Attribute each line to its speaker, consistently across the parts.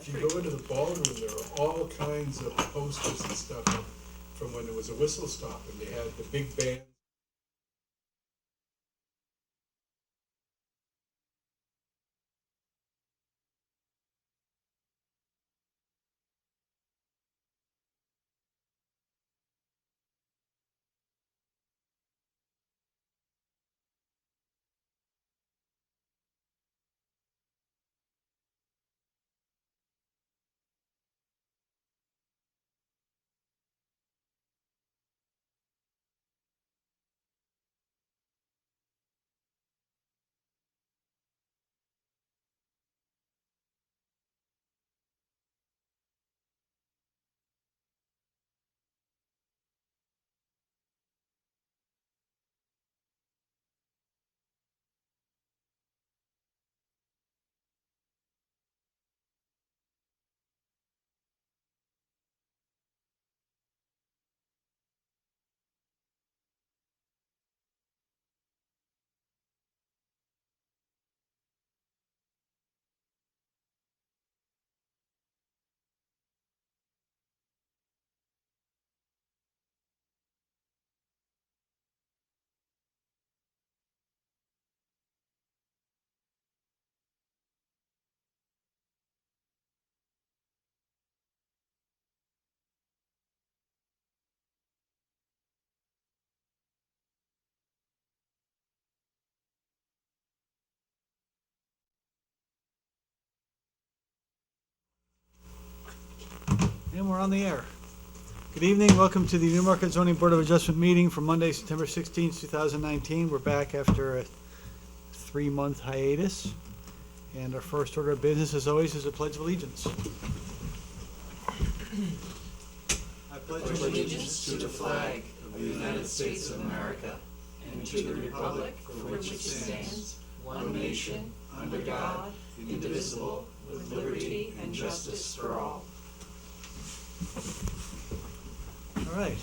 Speaker 1: If you go into the ballroom, there are all kinds of posters and stuff up from when there was a whistle stop and they had the big band.
Speaker 2: And we're on the air. Good evening, welcome to the Newmarket Zoning Board of Adjustment meeting for Monday, September 16th, 2019. We're back after a three-month hiatus. And our first order of business, as always, is the Pledge of Allegiance. I pledge All right.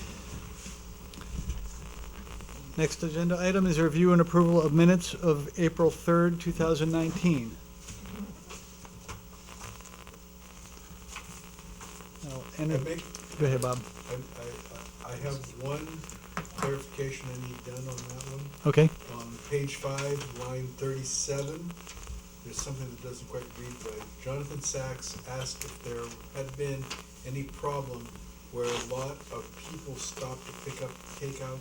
Speaker 2: Next agenda item is review and approval of minutes of April 3rd, 2019. I'll
Speaker 1: I
Speaker 2: enter-
Speaker 1: make,
Speaker 2: Go ahead, Bob.
Speaker 1: I, I, I have one clarification I need done on that one.
Speaker 2: Okay.
Speaker 1: On page five, line thirty-seven, there's something that doesn't quite read right. Jonathan Sachs asked if there had been any problem where a lot of people stopped to pick up takeout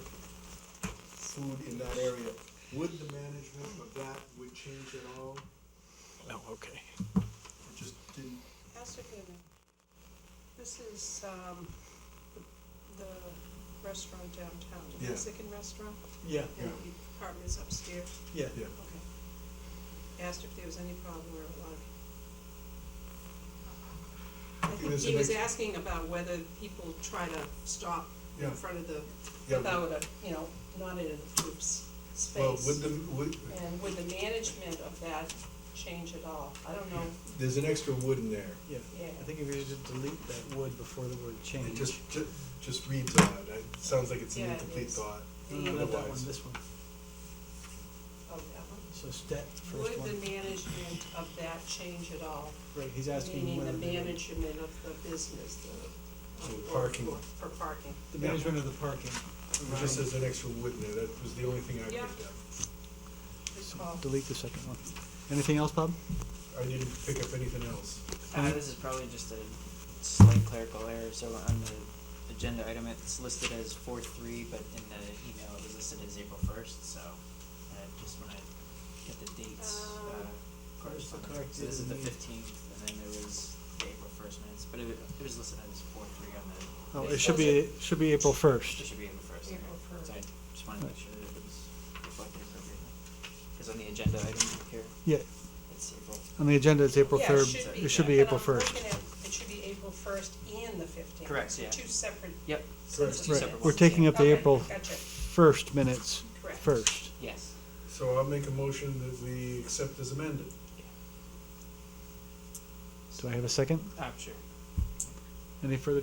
Speaker 1: food in that area. Would the management of that would change at all? Oh,
Speaker 2: No, okay.
Speaker 1: It just didn't,
Speaker 3: Pastor Goodman, this is, um, the restaurant downtown, the
Speaker 1: Yeah.
Speaker 3: Mexican restaurant,
Speaker 2: Yeah,
Speaker 3: and
Speaker 1: Yeah.
Speaker 3: the apartment is upstairs,
Speaker 2: yeah.
Speaker 1: yeah.
Speaker 3: okay. Asked if there was any problem where a lot of. I think
Speaker 1: was
Speaker 3: he
Speaker 1: an
Speaker 3: was
Speaker 1: ex-
Speaker 3: asking about whether people try to stop in
Speaker 1: Yeah.
Speaker 3: front of the,
Speaker 1: Yeah,
Speaker 3: without a, you know, not in a group s-
Speaker 1: Well, would
Speaker 3: space.
Speaker 1: the, would,
Speaker 3: And would the management of that change at all? I don't know,
Speaker 1: there's an extra wood in there.
Speaker 2: Yeah.
Speaker 3: yeah.
Speaker 2: I think if you just delete that wood before the word change.
Speaker 1: It just, ju- just reads odd. It sounds like it's an
Speaker 3: Yeah, it
Speaker 1: incomplete
Speaker 3: is.
Speaker 1: thought.
Speaker 2: No, no, not that one,
Speaker 1: Otherwise-
Speaker 2: this one.
Speaker 3: Oh, that one?
Speaker 2: So step, first
Speaker 3: Would
Speaker 2: one.
Speaker 3: the management of that change at all?
Speaker 2: Right, he's asking
Speaker 3: Meaning
Speaker 2: whether.
Speaker 3: the
Speaker 2: they-
Speaker 3: management of the business, the.
Speaker 1: So parking.
Speaker 3: for- For parking.
Speaker 2: The management of the parking.
Speaker 1: It just says an extra wood in there. That was the only thing I
Speaker 3: Yeah.
Speaker 1: picked up.
Speaker 3: Good call.
Speaker 2: Delete the second one. Anything else, Bob?
Speaker 1: I didn't pick up anything else.
Speaker 4: Uh, this is probably just a slight clerical error, so on the agenda item, it's listed as four three, but in the email, it was listed as April first, so, uh, just when I get the dates,
Speaker 3: Um,
Speaker 4: uh,
Speaker 2: Where's the
Speaker 4: correspondence.
Speaker 2: correct
Speaker 4: So this is the
Speaker 2: date?
Speaker 4: fifteenth, and then there was the April first minutes, but it, wa- it was listed as four three on the.
Speaker 2: Oh,
Speaker 4: the-
Speaker 2: it should be, it should be April
Speaker 4: It
Speaker 2: 1st.
Speaker 4: should be April first, okay,
Speaker 3: April first.
Speaker 4: so I just wanted to make sure that it was reflected appropriately, cause on the agenda item here,
Speaker 2: Yeah,
Speaker 4: it's April,
Speaker 2: on the agenda, it's April
Speaker 3: Yeah,
Speaker 2: 3rd. It should be
Speaker 3: but
Speaker 2: April
Speaker 3: I'm
Speaker 2: 1st.
Speaker 3: looking at- It should be April first and the fifteenth.
Speaker 4: Correct, yeah.
Speaker 3: Two separate.
Speaker 4: yep,
Speaker 3: sets of
Speaker 4: Two
Speaker 2: Right,
Speaker 4: separate
Speaker 3: minutes.
Speaker 2: we're
Speaker 4: ones,
Speaker 2: taking
Speaker 4: yeah.
Speaker 2: up the
Speaker 3: Okay,
Speaker 2: April
Speaker 3: Gotcha,
Speaker 2: 1st minutes
Speaker 3: Correct.
Speaker 2: first.
Speaker 4: yes,
Speaker 1: So I'll make a motion that we accept as amended.
Speaker 2: Do I have a second?
Speaker 4: I'm Oh, sure.
Speaker 2: Any further